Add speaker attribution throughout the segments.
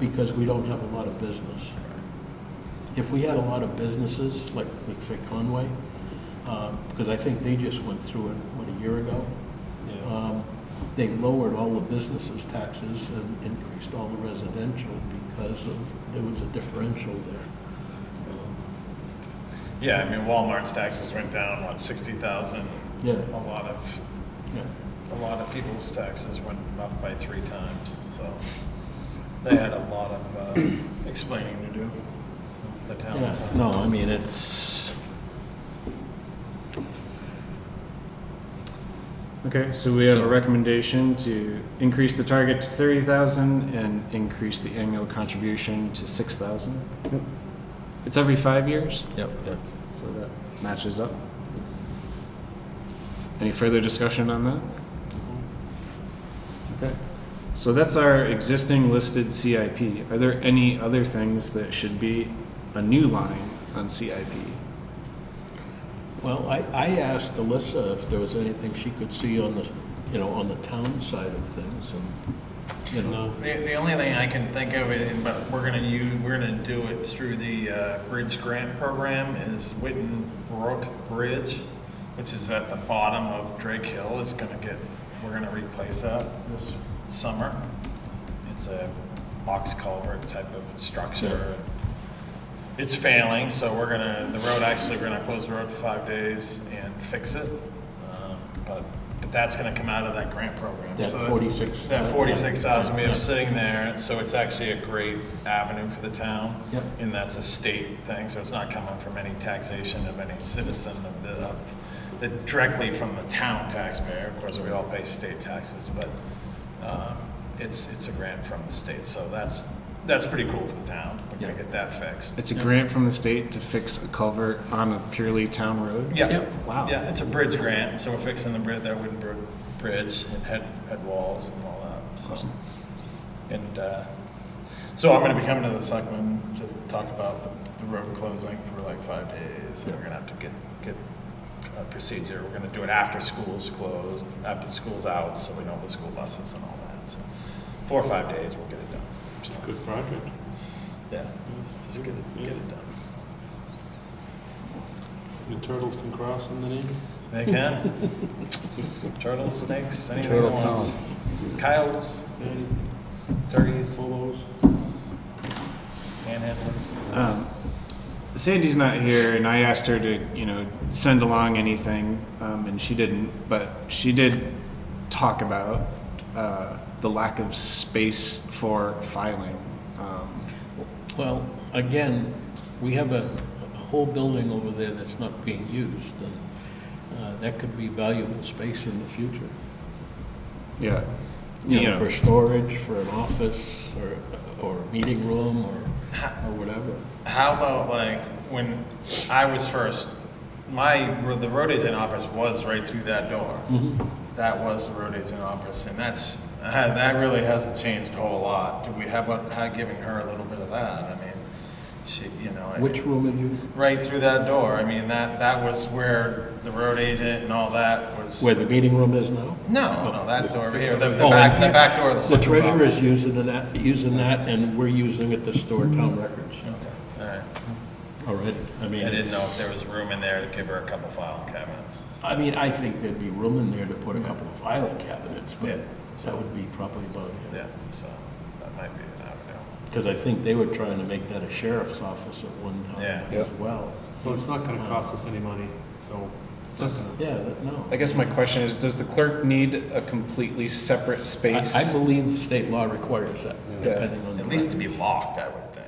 Speaker 1: because we don't have a lot of business. If we had a lot of businesses, like, like say Conway, uh, because I think they just went through it, what, a year ago?
Speaker 2: Yeah.
Speaker 1: Um, They lowered all the businesses' taxes and increased all the residential because of, there was a differential there.
Speaker 3: Yeah, I mean Walmart's taxes went down, what, sixty thousand?
Speaker 1: Yeah.
Speaker 3: A lot of,
Speaker 1: Yeah.
Speaker 3: a lot of people's taxes went up by three times, so they had a lot of uh, explaining to do, so, the town.
Speaker 1: Yeah,
Speaker 3: so.
Speaker 1: no, I mean, it's,
Speaker 2: Okay, so we have a
Speaker 1: So-
Speaker 2: recommendation to increase the target to thirty thousand and increase the annual contribution to six thousand. It's every five years,
Speaker 1: yep,
Speaker 2: so that matches up. Any further discussion on that? Okay, so that's our existing listed CIP. Are there any other things that should be a new line on CIP?
Speaker 1: Well, I, I asked Alyssa if there was anything she could see on the, you know, on the town side of things and, you know.
Speaker 3: The, the only thing I can think of, and- but we're gonna use, we're gonna do it through the uh, Bridge Grant Program, is Witten Brook Bridge, which is at the bottom of Drake Hill, is gonna get, we're gonna replace that this summer. It's a box culvert type of structure. It's failing, so we're gonna, the road, actually, we're gonna close the road for five days and fix it. Um, But, but that's gonna come out of that grant program.
Speaker 1: That
Speaker 3: So that-
Speaker 1: 46,000.
Speaker 3: That forty-six thousand we
Speaker 1: Yeah.
Speaker 3: have sitting there, so it's actually a great avenue for the town.
Speaker 1: Yep.
Speaker 3: And that's a state thing, so it's not coming from any taxation of any citizen of the, of, the- directly from the town taxpayer. Of course, we all pay state taxes, but, um, it's, it's a grant from the state, so that's, that's pretty cool for the town. We're gonna
Speaker 1: Yeah.
Speaker 3: get that fixed.
Speaker 2: It's a grant from the state to fix a culvert on a purely town road?
Speaker 3: Yeah.
Speaker 1: Yep.
Speaker 2: Wow.
Speaker 3: Yeah, it's a bridge grant, so we're fixing the bridge, that wooden br- bridge and head, head walls and all that. so.
Speaker 2: Awesome.
Speaker 3: And, uh, so I'm gonna be coming to the selectmen to talk about the, the road closing for like five days. And we're gonna have to get, get a procedure. We're gonna do it after school's closed, after school's out, so we know the school buses and all that. So Four or five days, we'll get it done. So,
Speaker 4: Good project.
Speaker 3: Yeah, just get it, get it done.
Speaker 4: The turtles can cross in the name.
Speaker 3: They can. Turtles, snakes, anything they
Speaker 2: Turtle
Speaker 3: want. Coyotes, turkeys,
Speaker 4: Polos.
Speaker 3: panhandlers.
Speaker 2: Um, Sandy's not here, and I asked her to, you know, send along anything, um, and she didn't. But she did talk about uh, the lack of space for filing. Um,
Speaker 1: Well, again, we have a, a whole building over there that's not being used, and uh, that could be valuable space in the future.
Speaker 2: yeah,
Speaker 1: You
Speaker 2: You
Speaker 1: know,
Speaker 2: know.
Speaker 1: for storage, for an office, or, or a meeting room, or, or whatever.
Speaker 3: How about like when I was first, my, the road agent office was right through that door.
Speaker 1: Mm-hmm.
Speaker 3: That was the road agent office and that's, uh, that really hasn't changed a whole lot. Do we have, a- how giving her a little bit of that? I mean, she, you know. I-
Speaker 1: Which room are you,
Speaker 3: Right through that door. I mean, that, that was where the road agent and all that was.
Speaker 1: where the meeting room is now?
Speaker 3: No, no, that door over here, the, the
Speaker 1: Oh,
Speaker 3: back,
Speaker 1: and
Speaker 3: the back door of the
Speaker 1: The
Speaker 3: central office.
Speaker 1: treasurer's using that, using that, and we're using it to store town records
Speaker 3: Okay, all right.
Speaker 1: already. I mean,
Speaker 3: I didn't know
Speaker 1: it's-
Speaker 3: if there was room in there to give her a couple file cabinets.
Speaker 1: I mean, I think there'd be room in there to put a couple of filing cabinets,
Speaker 3: Yeah.
Speaker 1: but that would be probably about it.
Speaker 3: Yeah, so that might be an avenue.
Speaker 1: Because I think they were trying to make that a sheriff's office at one
Speaker 3: Yeah.
Speaker 1: time
Speaker 2: Yeah.
Speaker 1: as well.
Speaker 4: Well, it's not gonna cost us any money, so. it's not
Speaker 2: Does-
Speaker 4: gonna-
Speaker 1: Yeah, that- no.
Speaker 2: I guess my question is: Does the clerk need a completely separate
Speaker 1: I
Speaker 2: space?
Speaker 1: I believe state law requires that,
Speaker 2: Yeah.
Speaker 1: depending on. the
Speaker 3: At least to be
Speaker 1: records.
Speaker 3: locked, I would think.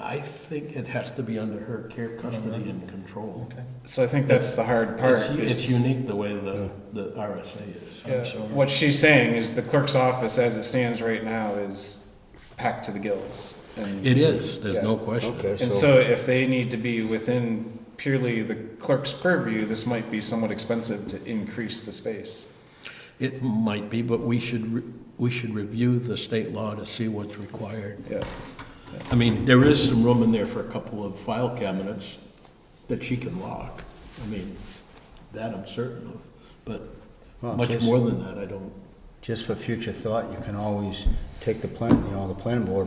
Speaker 1: I think it has to be under her care, custody, and control.
Speaker 2: so I think that's the hard part.
Speaker 1: It's
Speaker 2: is-
Speaker 1: it's unique the way the, the RSA is.
Speaker 2: Yeah, What she's saying is the clerk's office, as it stands right now, is packed to the gills. And,
Speaker 1: It is, there's no
Speaker 2: Yeah.
Speaker 1: question.
Speaker 2: and so, if they need to be within purely the clerk's purview, this might be somewhat expensive to increase the space.
Speaker 1: It might be, but we should, re- we should review the state law to see what's required.
Speaker 2: Yeah.
Speaker 1: I mean, there is some room in there for a couple of file cabinets that she can lock. I mean, that I'm certain of, but
Speaker 5: Well,
Speaker 1: much
Speaker 5: just-
Speaker 1: more than that, I don't,
Speaker 5: Just for future thought, you can always take the plan, you know, the planning board